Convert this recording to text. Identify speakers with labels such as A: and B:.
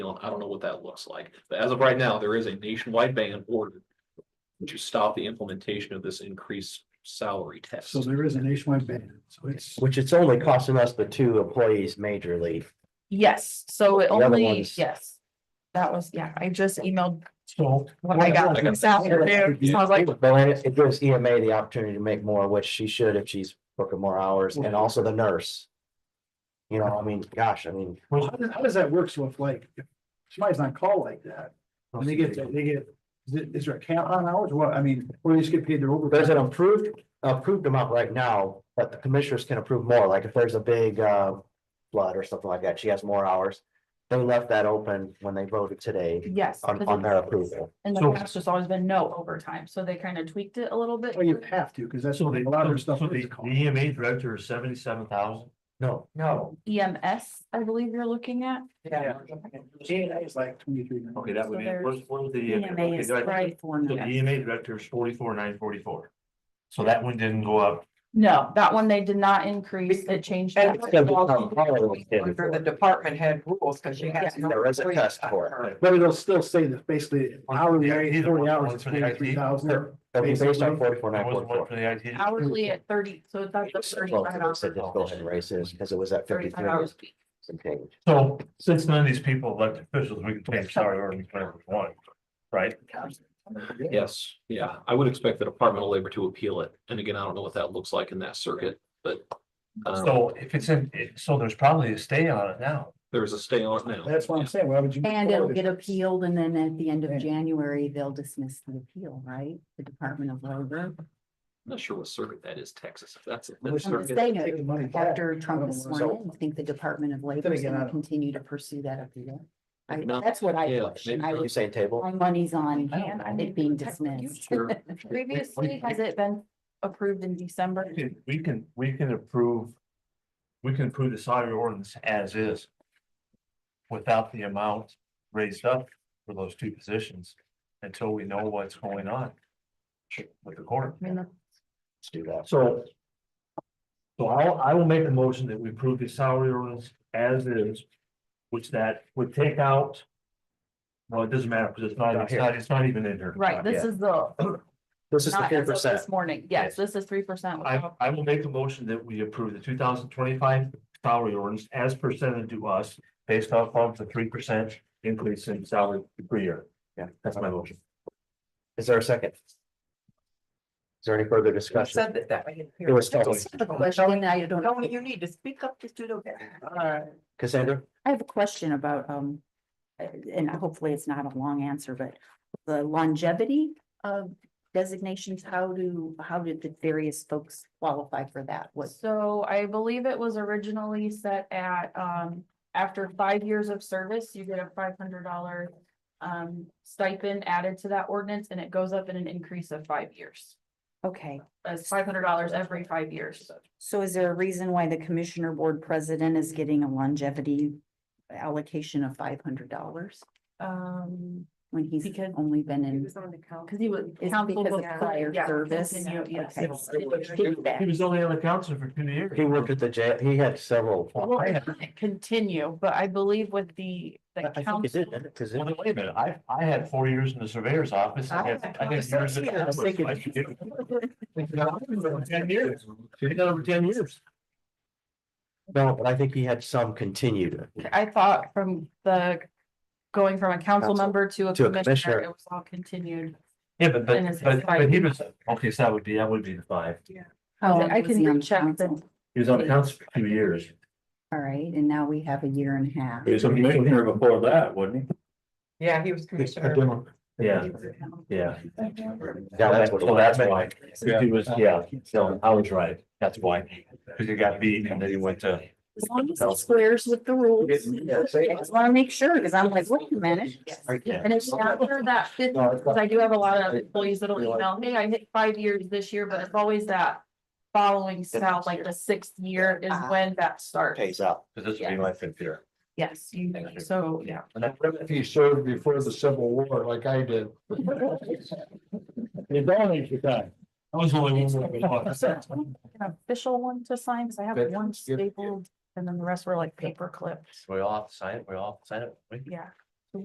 A: I don't know what that looks like, but as of right now, there is a nationwide ban ordered. To stop the implementation of this increased salary test.
B: So there is a nationwide ban, so it's,
C: Which it's only costing us the two employees majorly.
D: Yes, so it
C: The other
D: only,
C: ones-
D: yes. That was, yeah, I just emailed
B: so.
D: what I got
A: I got
D: this
A: that.
D: afternoon. So I was like,
C: But then it it gives EMA the opportunity to make more, which she should if she's working more hours,
D: Mm-hmm.
C: and also the nurse. You know, I mean, gosh, I mean.
B: Well, how does, how does that work? So if like, if somebody's on call like that, and they get, they get, is it- is there a cap on hours? Well, I mean, or they just get paid their
C: There's an
B: overtime?
C: approved, approved amount right now, but the commissioners can approve more, like if there's a big uh flood or something like that, she has more hours. They left that open when they voted today
D: yes.
C: on
D: because
C: on their
D: it's-
C: approval.
D: In the
E: So-
D: past, it's always been no overtime, so they kind of tweaked it a little bit.
B: Well, Oh, you have to, because that's
E: So
B: what
E: they,
B: a lot of their
E: so
B: stuff
E: the
B: is
E: the
B: called.
E: EMA director is seventy-seven thousand.
C: No, no.
D: EMS, E I believe you're looking at.
B: Yeah. Yeah, it's like twenty-three.
E: Okay, that would be, where's, where's the? E
D: E
C: E
E: okay, director- So the EMA director is forty-four, nine forty-four. So that one didn't go up.
D: No, that one they did not increase, it changed.
F: And
C: It's
D: that.
C: gonna become Hollywood kid.
F: Under the department head rules, because she has.
C: Yeah. There is a test for it.
B: But it'll still say that basically hourly
E: Yeah,
B: rate,
E: either
B: forty
E: one,
B: hours,
E: one
B: is
E: for the IT.
B: twenty-three thousand.
C: That'd be based on forty-four,
E: There
C: nine
E: was one
C: forty-four.
E: for the IT.
D: Hourly at thirty, so that's the
C: Well,
D: thirty-five
C: they
D: hours.
C: said just go ahead and raise this, because it was at
D: Thirty-five
C: fifty-three.
D: hours a week.
C: some change.
E: So since none of these people are elected officials, we can change salary ordinance whenever we want, right?
A: Yes, yeah, I would expect the Department of Labor to appeal it, and again, I don't know what that looks like in that circuit, but.
B: Uh-huh.
A: Um,
E: So if it's in, so there's probably a stay on it now.
A: there is a stay on it now.
B: That's what I'm saying, why would you?
G: And it'll get appealed and then at the end
B: Yeah.
G: of January, they'll dismiss the appeal, right? The Department of Labor.
A: I'm not sure what circuit that is, Texas, if that's.
B: I'm just
G: I'm just
A: circuit.
G: saying,
B: Take the money
G: if-
B: back.
G: after Trump is
B: I don't
G: sworn
B: know.
G: in, I think the Department of Labor is
B: again, I
G: gonna
B: don't-
G: continue to pursue that appeal. I,
A: No.
G: that's what I
A: Yeah,
G: question.
A: maybe
G: I
C: Are you
G: was,
C: saying table?
G: my money's on
D: And I
G: it
D: mean,
G: being
D: technically,
G: dismissed.
A: Sure.
D: Previously, has it been approved in December?
E: We can- We can, we can approve. We can approve the salary ordinance as is. Without the amount raised up for those two positions until we know what's going on. With the court.
D: I mean, the
C: Let's do that.
E: So. So I'll, I will make a motion that we approve the salary ordinance as is, which that would take out. Well, it doesn't matter because it's not, it's not, it's not even in here.
D: Right, this is the,
C: This is the
D: not
C: three
D: as of
C: percent.
D: this morning, yes, this is three percent.
E: I, I will make a motion that we approve the two thousand twenty-five salary ordinance as presented to us based off of the three percent increase in salary per year.
C: Yeah.
E: That's my motion.
C: Is there a second? Is there any further discussion?
F: Said that that way.
C: It was
G: I
C: totally.
G: just have a question. I don't.
F: Tony, you need to speak up just a little bit.
C: Cassandra?
G: I have a question about, um, uh, and hopefully it's not a long answer, but the longevity of designations, how do, how did the various folks qualify for that? Was
D: So I believe it was originally set at, um, after five years of service, you get a five hundred dollar. Um, stipend added to that ordinance and it goes up in an increase of five years,
G: okay,
D: as five hundred dollars every five years.
G: so is there a reason why the commissioner board president is getting a longevity allocation of five hundred dollars
D: Um,
G: when he's
D: Because
G: only been in?
F: on the count.
D: cause he was.
G: Is it
D: council
G: because of
D: before,
G: prior
D: yeah,
G: service?
D: continue, yes.
G: Okay.
E: He was
G: Oh,
E: only on the council for two years.
C: He worked at the jail. He had several.
D: Well, it didn't Continue, but I believe with the,
C: I
D: the
C: think it
D: council.
C: did, didn't it? 'Cause it-
E: Well, then wait a minute, I, I had four years in the surveyor's office. I had, I had years in.
C: I was thinking-
E: I did- Ten years, He done it for ten years.
C: No, but I think he had some continued.
D: I thought from the, going from a council
C: Council
D: member to a
C: to a
D: commissioner,
C: commissioner.
D: it was all continued.
E: Yeah, but,
D: And it's-
E: but,
D: it's
E: but,
D: five
E: but he
D: years.
E: was, okay, so that would be, that would be the five.
G: How long
D: I
G: was
D: can
G: he on
D: recheck the
G: council?
E: He was on the council for two years.
G: All right, and now we have a year and a half.
E: was a commissioner before that, wasn't
F: Yeah, he was commissioner.
E: he? Yeah, yeah.
C: Yeah, that's what.
E: So that's why. He was, yeah, so I was right. That's why. Cause he got beat and then he went to.
G: As long as it squares with the rules.
C: Yeah, say
G: I
C: it.
G: just wanna make sure, cause I'm like, wait a minute.
D: And it's after that fifth,
C: No, it's
D: because
C: not-
D: I do have a lot of employees that'll email, hey, I hit five years this year, but it's always that. Following sound, like the sixth year is
G: Ah.
D: when that starts.
C: Pays out.
E: Cause this would be my fifth year.
D: Yes, you, so, yeah.
H: If he served before the Civil War like I did. You don't need your time.
E: I was only one.
D: An official one to sign, because I have
H: Good.
D: one
H: Good.
D: stapled, and then the rest were like paper clipped,
E: We all have to sign it, we all have to sign it.
D: yeah.